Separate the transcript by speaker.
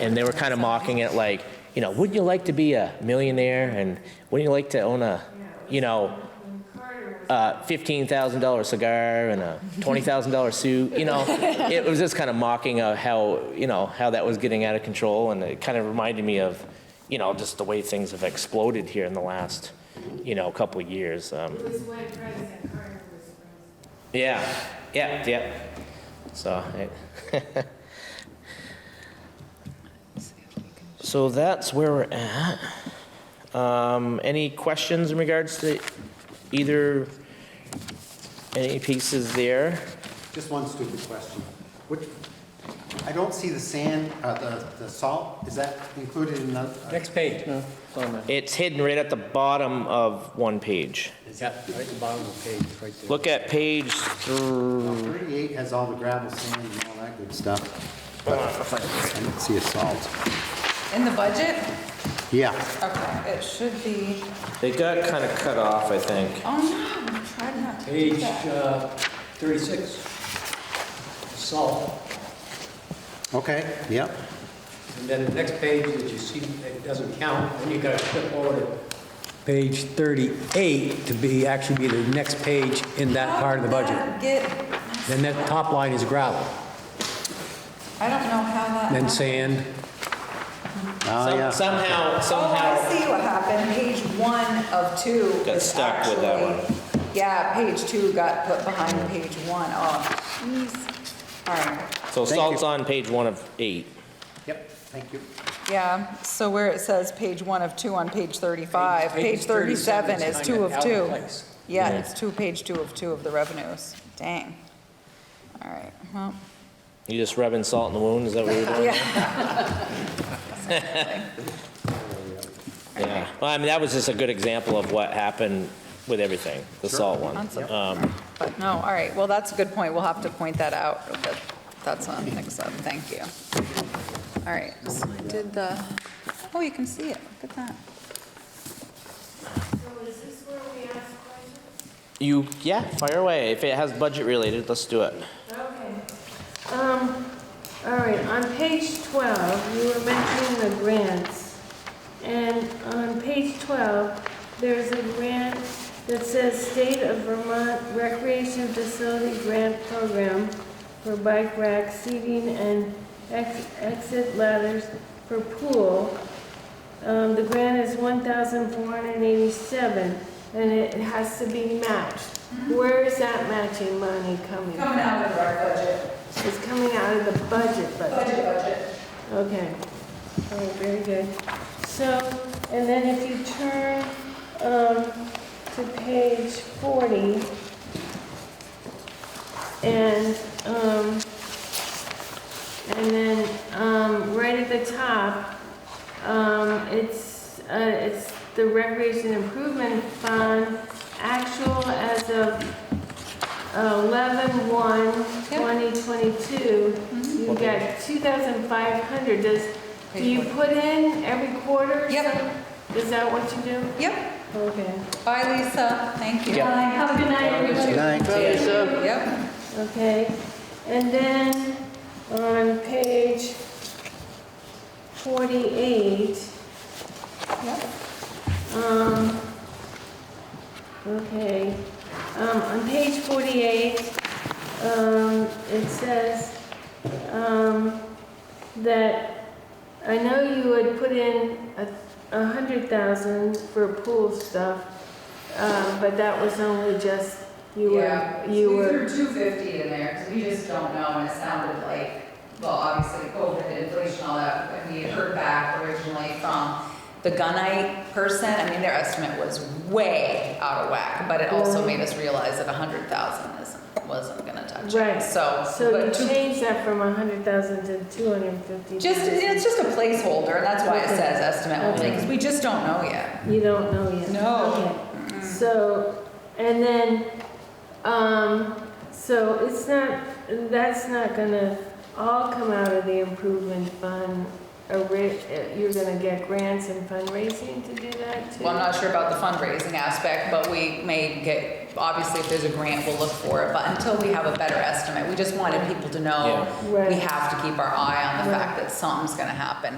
Speaker 1: And they were kind of mocking it like, you know, wouldn't you like to be a millionaire? And wouldn't you like to own a, you know, uh, $15,000 cigar and a $20,000 suit? You know, it was just kind of mocking of how, you know, how that was getting out of control. And it kind of reminded me of, you know, just the way things have exploded here in the last, you know, couple of years. Um,
Speaker 2: It was when President Carter was president.
Speaker 1: yeah, yeah, yeah. So, it- so that's where we're at. Um, any questions in regards to either, any pieces there?
Speaker 3: Just one stupid question. Which, I don't see the sand, uh, the, the salt, is that included in the? uh,
Speaker 4: Next page. It's on the,
Speaker 1: It's hidden right at the bottom of one page.
Speaker 4: yeah, right at the bottom of the page, right there.
Speaker 1: Look at page through,
Speaker 3: Thirty-eight has all the gravel, sand, and all that good stuff. But I don't see a salt.
Speaker 5: In the budget?
Speaker 3: Yeah,
Speaker 5: Okay, it should be,
Speaker 1: they got kind of cut off, I think.
Speaker 5: oh no, I tried not to do
Speaker 4: Page
Speaker 5: that.
Speaker 4: uh, 36. Salt.
Speaker 3: okay, yep.
Speaker 4: And then the next page that you see, it doesn't count, then you gotta flip over to page 38 to be, actually be the next page in that part of the
Speaker 5: How did
Speaker 4: budget.
Speaker 5: that Get,
Speaker 4: Then that top line is gravel,
Speaker 5: I don't know how that.
Speaker 4: then
Speaker 5: happened.
Speaker 4: sand,
Speaker 3: Oh,
Speaker 1: Some-
Speaker 3: yeah.
Speaker 1: Somehow,
Speaker 5: Oh,
Speaker 1: somehow.
Speaker 5: I see what happened. Page one of two.
Speaker 1: Got
Speaker 5: is
Speaker 1: stuck with that
Speaker 5: actually- Yeah, page two got put behind page one. Oh, jeez. All right.
Speaker 1: So
Speaker 3: Thank you.
Speaker 1: salt's on page one of eight.
Speaker 3: Yep, thank you.
Speaker 5: Yeah, so where it says page one of two on page 35,
Speaker 4: Page-
Speaker 5: page 37
Speaker 4: page
Speaker 5: is
Speaker 4: 37 is
Speaker 5: two
Speaker 4: kind
Speaker 5: of
Speaker 4: of out
Speaker 5: two.
Speaker 4: of place.
Speaker 5: Yeah,
Speaker 1: Yeah.
Speaker 5: it's two, page two of two of the revenues. Dang. All right, well,
Speaker 1: You just rubbing salt in the wound, is that what you're doing?
Speaker 5: yeah,
Speaker 1: Yeah. Well, I mean, that was just a good example of what happened with everything, the salt one.
Speaker 5: on some- but no, all right, well, that's a good point. We'll have to point that out, that that's on next up, thank you. All right, so did the, oh, you can see it, look at that.
Speaker 2: So is this where we ask questions?
Speaker 1: You, yeah, fire away. If it has budget related, let's do it.
Speaker 2: Okay. Um, all right, on page 12, you were mentioning the grants. And on page 12, there's a grant that says State of Vermont Recreation Facility Grant Program for bike rack seating and ex- exit ladders for pool. Um, the grant is 1,487, and it has to be matched. Where is that matching money coming from?
Speaker 5: out of our budget,
Speaker 2: It's coming out of the budget, but,
Speaker 5: budget.
Speaker 2: okay. All right, Oh, very good. So, and then if you turn um, to page 40, and, um, and then um, right at the top, um, it's, uh, it's the Recreation Improvement Fund, actual as of 11/1/2022. You got 2,500. Does, do you put in every quarter?
Speaker 5: Yep.
Speaker 2: So, Is that what you do?
Speaker 5: Yep,
Speaker 2: Okay.
Speaker 5: bye, Lisa, thank you.
Speaker 1: Yeah.
Speaker 5: Bye.
Speaker 2: Have a good night, everybody.
Speaker 3: Good night.
Speaker 5: Yep.
Speaker 2: Okay, and then on page 48. Um, okay, um, on page 48, um, it says, um, that, I know you had put in a, a hundred thousand for pool stuff, uh, but that was only just, you were,
Speaker 6: Yeah,
Speaker 2: you
Speaker 6: we
Speaker 2: were.
Speaker 6: threw two fifty in there, because we just don't know, and it sounded like, well, obviously COVID, inflation, all that, and we had heard back originally from the gunite person, I mean, their estimate was way out of whack, but it also made us realize that a hundred thousand isn't, wasn't gonna touch
Speaker 2: Right.
Speaker 6: it, so.
Speaker 2: So
Speaker 6: but
Speaker 2: you
Speaker 6: two-
Speaker 2: changed that from a hundred thousand to two hundred and fifty?
Speaker 6: Just, it's just a placeholder, and that's why it
Speaker 2: Okay.
Speaker 6: says estimate only,
Speaker 2: Okay.
Speaker 6: because we just don't know yet.
Speaker 2: You don't know yet?
Speaker 6: No.
Speaker 2: Okay. So, and then, um, so it's not, that's not gonna all come out of the improvement fund a ra- uh, you're gonna get grants and fundraising to do that too?
Speaker 5: Well, I'm not sure about the fundraising aspect, but we may get, obviously, if there's a grant, we'll look for it. But until we have a better estimate, we just wanted people to know
Speaker 2: Yeah.
Speaker 5: we
Speaker 2: Right.
Speaker 5: have to keep our eye on the
Speaker 2: Right.
Speaker 5: fact that something's gonna happen.